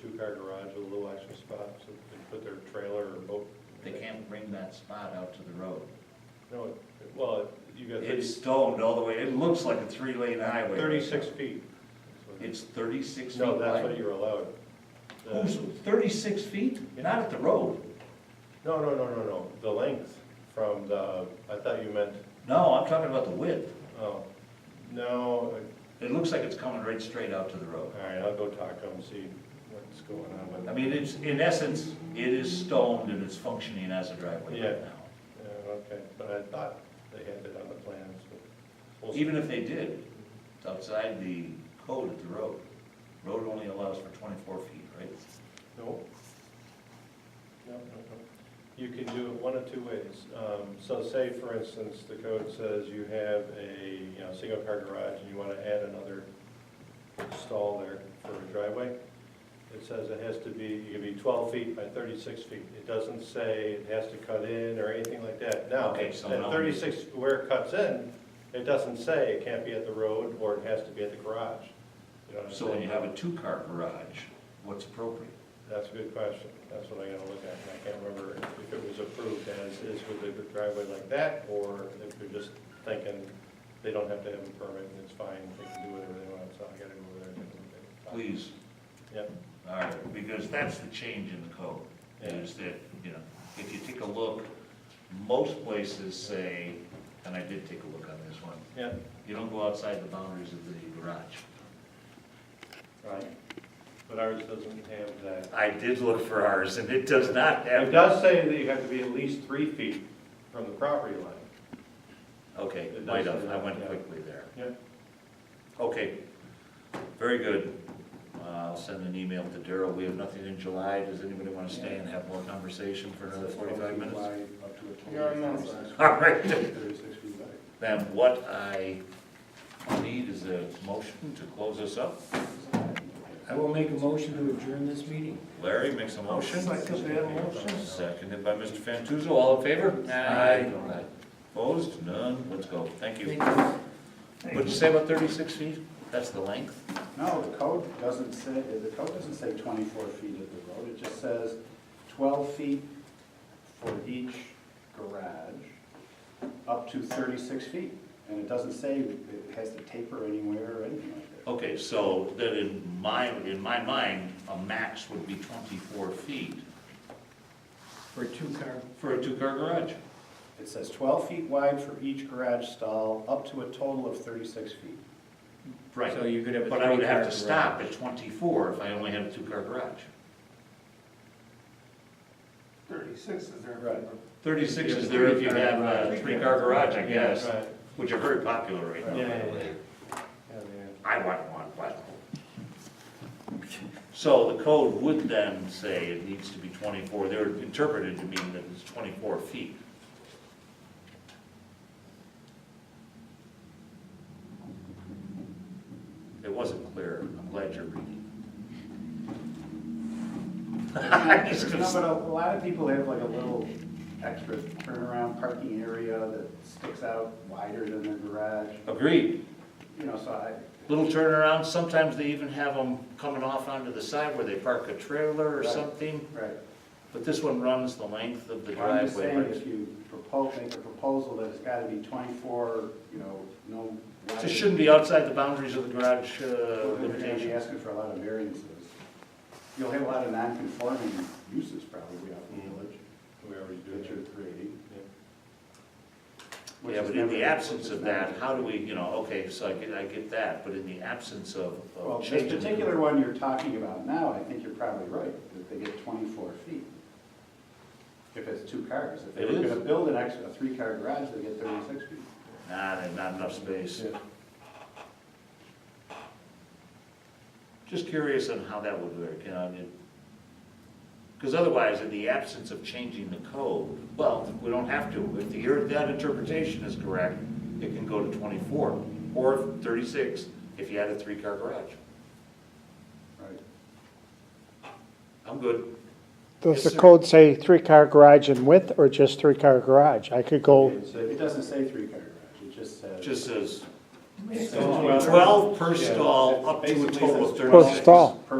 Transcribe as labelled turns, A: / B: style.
A: two-car garage with a little extra spot, so they can put their trailer or boat.
B: They can't bring that spot out to the road.
A: No, it- well, you got thirty-
B: It's stoned all the way, it looks like a three-lane highway.
A: thirty-six feet.
B: It's thirty-six feet
A: No, that's
B: wide.
A: what you're uh, allowed. The-
B: Who's, thirty-six feet? Not at the road.
A: No, no, no, no, no, the length from the, I thought you meant,
B: No, I'm talking about the width.
A: oh, no,
B: It looks like it's coming right straight out to the road.
A: all right, I'll go talk to them, see what's going on with
B: I
A: that.
B: mean, it's, in essence, it is stoned and it's functioning as a driveway right
A: Yeah.
B: now.
A: Yeah, okay, but I thought they had it on the plans, but. we'll see.
B: Even if they did, it's outside the code of the road. Road only allows for twenty-four feet, right?
A: No. No, no, no. You can do it one of two ways. Um, So say, for instance, the code says you have a, you know, single-car garage and you want to add another stall there for a driveway. It says it has to be, it can be 12 feet by 36 feet. It doesn't say it has to cut in or anything like that. Now,
B: Okay, so
A: at
B: now-
A: 36, where it cuts in, it doesn't say it can't be at the road or it has to be at the garage. You know what I'm
B: So when you
A: saying?
B: have a two-car garage, what's appropriate?
A: That's a good question. That's what I gotta look at, and I can't remember if it was approved as is with a driveway like that, or if they're just thinking they don't have to have a permit and it's fine, they can do whatever they want, so I gotta go over there and take a look
B: Please,
A: at it. Yep,
B: all right, because that's the change in the code, is that, you know, if you take a look, most places say, and I did take a look on this one,
A: yep,
B: you don't go outside the boundaries of the garage.
A: right. But ours doesn't have that.
B: I did look for ours, and it does not
A: It
B: have that.
A: does say that you have to be at least three feet from the property line.
B: Okay,
A: It
B: might
A: does
B: have, I
A: have,
B: went
A: yeah.
B: quickly there.
A: Yep.
B: Okay, very good. Uh, I'll send an email to Daryl, we have nothing in July, does anybody want to stay and have more conversation for another forty-five minutes?
C: You're on that
B: All right,
C: Thirty-six feet back.
B: then what I need is a motion to close this up.
D: I will make a motion to adjourn this meeting.
B: Larry makes a motion.
C: Second that motion.
B: Seconded by Mr. Fantuzzo, all in favor?
D: Aye.
B: Opposed? None? Let's go. Thank you.
D: Thank you.
B: What'd you say about thirty-six feet? That's the length?
C: No, the code doesn't say, the code doesn't say twenty-four feet of the road, it just says twelve feet for each garage, up to thirty-six feet. And it doesn't say it has to taper anywhere or anything like that.
B: Okay, so then in my, in my mind, a max would be twenty-four feet
D: For a two-car,
B: for a two-car garage.
C: It says twelve feet wide for each garage stall, up to a total of thirty-six feet.
B: Right,
D: so you could have a
B: but I would have to
D: three-car
B: stop at twenty-four if I only had a two-car garage.
E: Thirty-six is there.
C: Right.
B: Thirty-six is there if you have a three-car garage, I guess,
A: Right,
B: which are very popular right
A: Yeah,
B: now.
A: yeah, yeah. Yeah, yeah.
B: I want one, but. So the code would then say it needs to be twenty-four, they're interpreted to mean that it's twenty-four feet. It wasn't clear, I'm glad you're reading. I'm just gonna
C: No,
B: s-
C: but a lot of people have like a little extra turnaround parking area that sticks out wider than their garage,
B: Agreed,
C: you know, so I,
B: little turnaround, sometimes they even have them coming off onto the side where they park a trailer or
C: Right.
B: something,
C: right.
B: but this one runs the length of the driveway.
C: I'm just saying,
B: right?
C: if you propose, make a proposal that it's gotta be twenty-four, you know, no.
B: So It shouldn't be outside the boundaries of the garage uh,
C: We're gonna be
B: limitation.
C: asking for a lot of variances. You'll have a lot of non-conforming uses probably out in the
B: Mm-hmm.
C: village
A: We already do
C: that
A: that.
C: you're creating.
A: Yeah.
C: which
B: Yeah,
C: is
B: but in the
C: never-
B: absence
C: which is
B: of that,
C: never-
B: how do we, you know, okay, so I get, I get that, but in the absence of. of
C: Well, this
B: change in the-
C: particular one you're talking about now, I think you're probably right, that they get twenty-four feet. If it's two cars, if they
B: It
C: were
B: is.
C: gonna build an extra, a three-car garage, they get thirty-six feet.
B: Nah, there's not enough space. Just curious on how that would work, you know, I mean, because otherwise, in the absence of changing the code, well, we don't have to. If the, your- that interpretation is correct, it can go to twenty-four, or thirty-six, if you had a three-car garage.
C: Right.
B: I'm good.
F: Does
B: Yes,
F: the
B: sir.
F: code say three-car garage in width or just three-car garage? I could go,
C: It it doesn't say three-car garage, it just says.
B: Just says
C: It says
A: So-
B: 12 per
A: Yeah.
B: stall, up to a
C: Basically
B: total of
C: says
B: 36.
F: Per stall.
C: Per